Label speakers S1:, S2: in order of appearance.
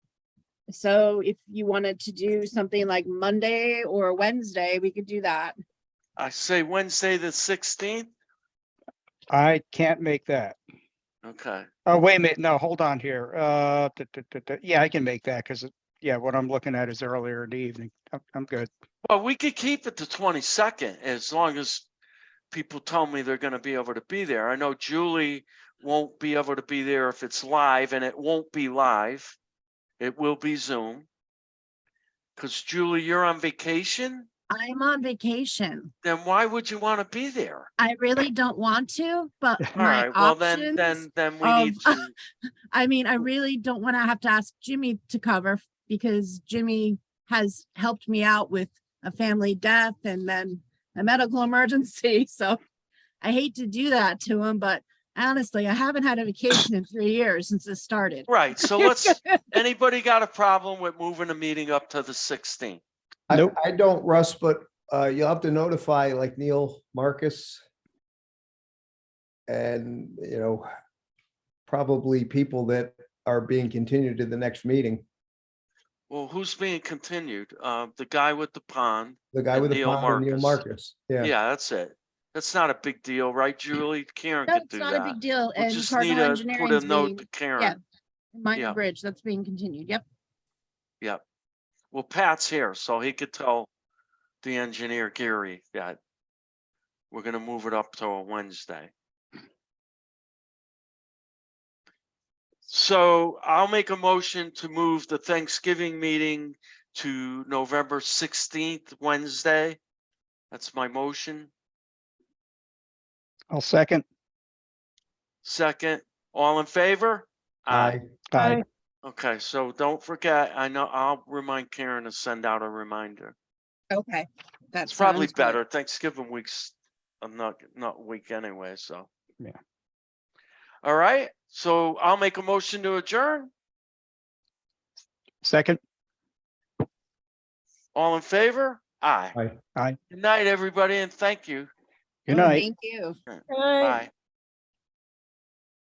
S1: So if you wanted to do something like Monday or Wednesday, we could do that.
S2: I say Wednesday, the sixteenth?
S3: I can't make that.
S2: Okay,
S3: Oh, wait a minute. No, hold on here. Uh, duh, duh, duh, duh. yeah, I can make that because, yeah, what I'm looking at is earlier in the evening. I'm, I'm good.
S2: well, we could keep it the twenty-second as long as people tell me they're gonna be able to be there. I know Julie won't be able to be there if it's live and it won't be live. It will be Zoom. Cause Julie, you're on vacation,
S1: I'm on vacation.
S2: then why would you wanna be there?
S1: I really don't want to, but
S2: All
S1: my
S2: right, well, then, then,
S1: options,
S2: then we
S1: of-
S2: need to,
S1: I mean, I really don't want to have to ask Jimmy to cover f- because Jimmy has helped me out with a family death and then a medical emergency. So I hate to do that to him, but honestly, I haven't had a vacation in three years since this started.
S2: right, so let's, anybody got a problem with moving the meeting up to the sixteenth?
S4: I,
S3: Nope.
S4: I don't, Russ, but uh, you'll have to notify like Neil Marcus. And, you know, probably people that are being continued to the next meeting,
S2: Well, who's being continued? Uh, the guy with the pond?
S4: the guy
S2: And
S4: with the
S2: Neil
S4: pond, Neil
S2: Marcus.
S4: Marcus, yeah.
S2: Yeah, that's it. That's not a big deal, right, Julie? Karen
S1: No,
S2: could
S1: it's
S2: do
S1: not a
S2: that.
S1: big deal.
S2: We'll
S1: And
S2: just need
S1: Cardinal
S2: to put a
S1: Engineering's
S2: note
S1: being,
S2: to Karen. yeah.
S1: Michael Bridge, that's being continued. Yep.
S2: Yep. Well, Pat's here, so he could tell the engineer Gary that we're gonna move it up to a Wednesday. So I'll make a motion to move the Thanksgiving meeting to November sixteenth, Wednesday. That's my motion.
S3: I'll second.
S2: Second, all in favor?
S4: Aye.
S3: Aye.
S2: Okay, so don't forget, I know, I'll remind Karen to send out a reminder.
S1: Okay. That's
S2: It's probably better. Thanksgiving week's, I'm not, not week anyway, so.
S3: Yeah.
S2: All right, so I'll make a motion to adjourn.
S3: Second.
S2: All in favor? Aye.
S4: Aye.
S3: Aye.
S2: Good night, everybody, and thank you.
S3: Good night.
S1: Thank you.
S2: Bye.